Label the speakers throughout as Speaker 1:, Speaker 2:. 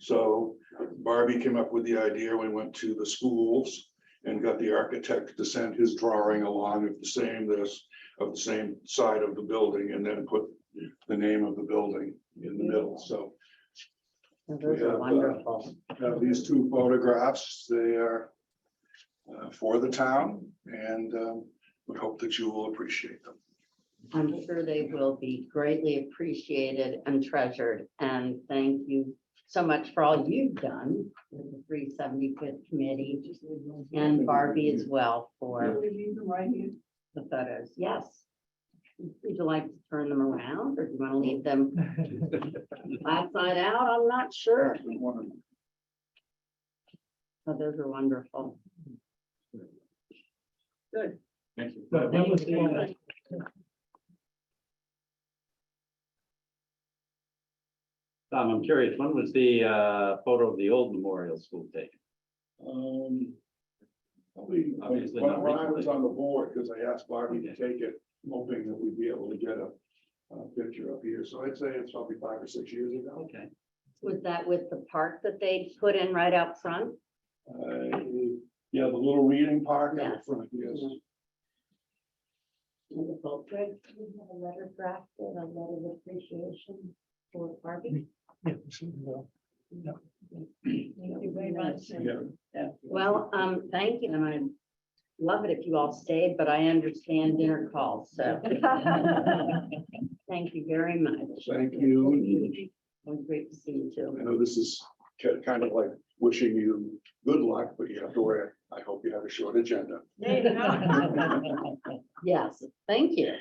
Speaker 1: So Barbie came up with the idea, we went to the schools and got the architect to send his drawing along of the same this, of the same side of the building and then put the name of the building in the middle, so.
Speaker 2: Those
Speaker 1: have,
Speaker 2: are
Speaker 1: uh,
Speaker 2: wonderful.
Speaker 1: Now, these two photographs, they are uh, for the town and um, we hope that you will appreciate them.
Speaker 2: I'm sure they will be greatly appreciated and treasured. And thank you so much for all you've done with the three seventy-fifth committee and Barbie as well for the photos. Yes. Would you like to turn them around or do you want to leave them outside out? I'm not sure. But those are wonderful.
Speaker 3: Thank you.
Speaker 2: Thank
Speaker 1: uh,
Speaker 2: you.
Speaker 3: Tom, I'm curious, when was the uh, photo of the old memorial school taken?
Speaker 1: Um, Probably, when
Speaker 3: Obviously
Speaker 1: when
Speaker 3: not
Speaker 1: when I was
Speaker 3: recently.
Speaker 1: on the board, because I asked Barbie to take it, hoping that we'd be able to get a, a picture up here, so I'd say it's probably five or six years ago.
Speaker 3: Okay.
Speaker 2: Was that with the park that they put in right out front?
Speaker 1: Uh, yeah, the little reading park out
Speaker 2: Yeah.
Speaker 1: front, yes,
Speaker 2: Wonderful. Greg, do you have a letter drafted, a letter of appreciation for
Speaker 1: Mm,
Speaker 2: Barbie?
Speaker 4: Thank you very much.
Speaker 2: Mm-hmm.
Speaker 1: yeah.
Speaker 2: Well, um, thank you, and I love it if you all stayed, but I understand dinner calls, so thank you very much.
Speaker 1: Thank you.
Speaker 2: It was great to see you too.
Speaker 1: I know this is ki- kind of like wishing you good luck, but you have to wear, I hope you have a short agenda.
Speaker 4: There you go.
Speaker 2: Yes, thank you.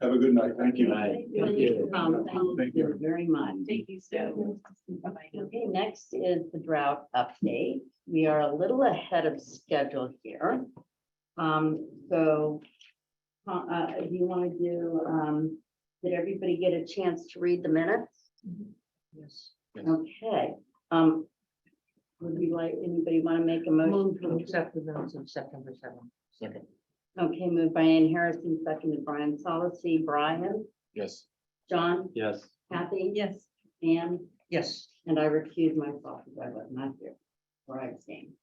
Speaker 1: Have a good night, thank you.
Speaker 3: Right.
Speaker 2: Thank you, Tom. Thank
Speaker 1: Thank
Speaker 2: you
Speaker 1: you.
Speaker 2: very much.
Speaker 4: Thank you so. much.
Speaker 2: Okay, next is the drought update. We are a little ahead of schedule here. Um, so, uh, uh, do you want to do, um, did everybody get a chance to read the minutes?
Speaker 4: Yes.
Speaker 2: Okay, um, would you like, anybody want to make a motion? to accept?
Speaker 4: the minutes of September seventh.
Speaker 3: Second,
Speaker 2: Okay, moved by Ann Harrison, seconded by Brian Solace, Brian,
Speaker 3: yes.
Speaker 2: John,
Speaker 3: Yes,
Speaker 2: Kathy,
Speaker 4: Yes.
Speaker 2: Ann.
Speaker 4: Yes.
Speaker 2: And I recuse myself because I was not here or I abstained.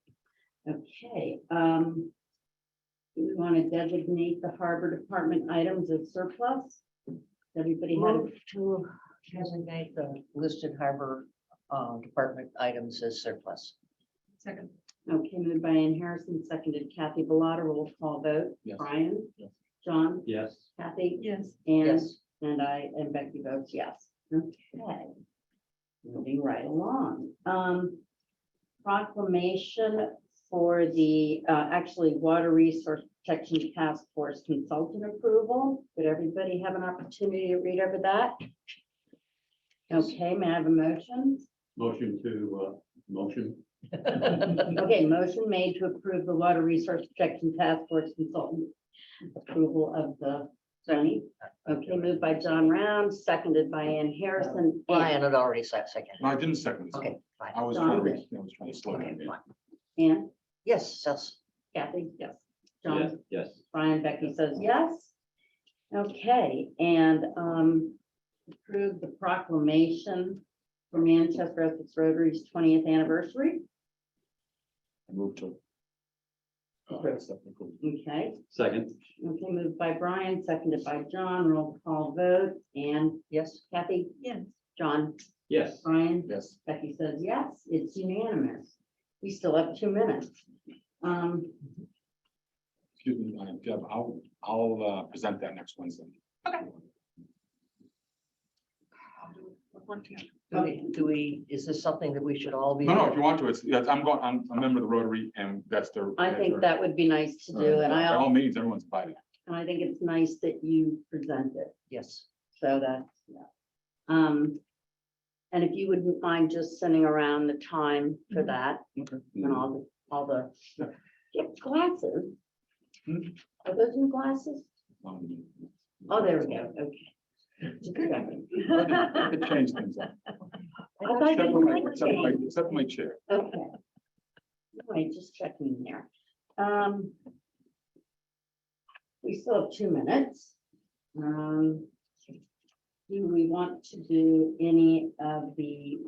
Speaker 2: Okay, um. Do we want to designate the harbor department items as surplus? Everybody had,
Speaker 5: Move to designate the listed harbor uh, department items as surplus.
Speaker 4: Second.
Speaker 2: okay, moved by Ann Harrison, seconded Kathy Bellata, roll call vote.
Speaker 3: Yes.
Speaker 2: Brian?
Speaker 3: Yes.
Speaker 2: John?
Speaker 3: yes.
Speaker 2: Kathy?
Speaker 4: Yes.
Speaker 2: Ann?
Speaker 5: Yes.
Speaker 2: And I, and Becky votes yes. Okay. Moving right along. Um, proclamation for the, uh, actually Water Resource Protection Task Force Consultant Approval. Did everybody have an opportunity to read over that? Okay, may I have a motion?
Speaker 3: Motion to, uh, motion,
Speaker 2: Okay, motion made to approve the Water Resource Protection Task Force Consultant approval of the zoning. Okay, moved by John Round, seconded by Ann Harrison.
Speaker 5: Brian had already said second.
Speaker 6: No, I didn't second this.
Speaker 5: Okay, fine.
Speaker 6: I was trying to,
Speaker 2: Sorry.
Speaker 6: reach- I was trying to slow
Speaker 5: Okay,
Speaker 6: down.
Speaker 5: fine.
Speaker 2: Ann?
Speaker 5: Yes, yes.
Speaker 2: Kathy? Yes.
Speaker 3: yes,
Speaker 2: John,
Speaker 3: yes.
Speaker 2: Brian, Becky says yes. Okay, and um, approve the proclamation for Manchester Essex Rotary's twentieth anniversary.
Speaker 6: I moved to. Oh, that's technical.
Speaker 2: Okay,
Speaker 3: Second,
Speaker 2: okay, moved by Brian, seconded by John, roll call vote, and
Speaker 5: Yes,
Speaker 2: Kathy,
Speaker 4: Yes.
Speaker 2: John,
Speaker 3: yes.
Speaker 2: Brian,
Speaker 6: Yes,
Speaker 2: Becky says yes, it's unanimous. We still have two minutes. Um,
Speaker 6: excuse me, uh, Deb, I'll, I'll uh, present that next Wednesday. Okay.
Speaker 5: do we, do we, is this something that we should all be?
Speaker 6: No, no, if you want to, it's, yeah, I'm going, I'm I'm a member of the Rotary and that's their.
Speaker 2: I think that would be nice to do, and
Speaker 6: By
Speaker 2: I,
Speaker 6: all means, everyone's invited.
Speaker 2: and I think it's nice that you present it.
Speaker 5: Yes.
Speaker 2: So that's, yeah. Um, and if you wouldn't mind just sending around the time for that
Speaker 6: Mm-hmm. Okay.
Speaker 2: and all the, all the, get glasses.
Speaker 6: Hmm?
Speaker 2: Are those new glasses?
Speaker 6: Um,
Speaker 2: Oh, there we go, okay.
Speaker 6: I could change things up.
Speaker 2: I thought you
Speaker 6: Except for my-
Speaker 2: liked
Speaker 6: except for my-
Speaker 2: it.
Speaker 6: Except for my chair.
Speaker 2: Okay. Wait, just checking there. Um. We still have two minutes. Um. Do we want to do any of the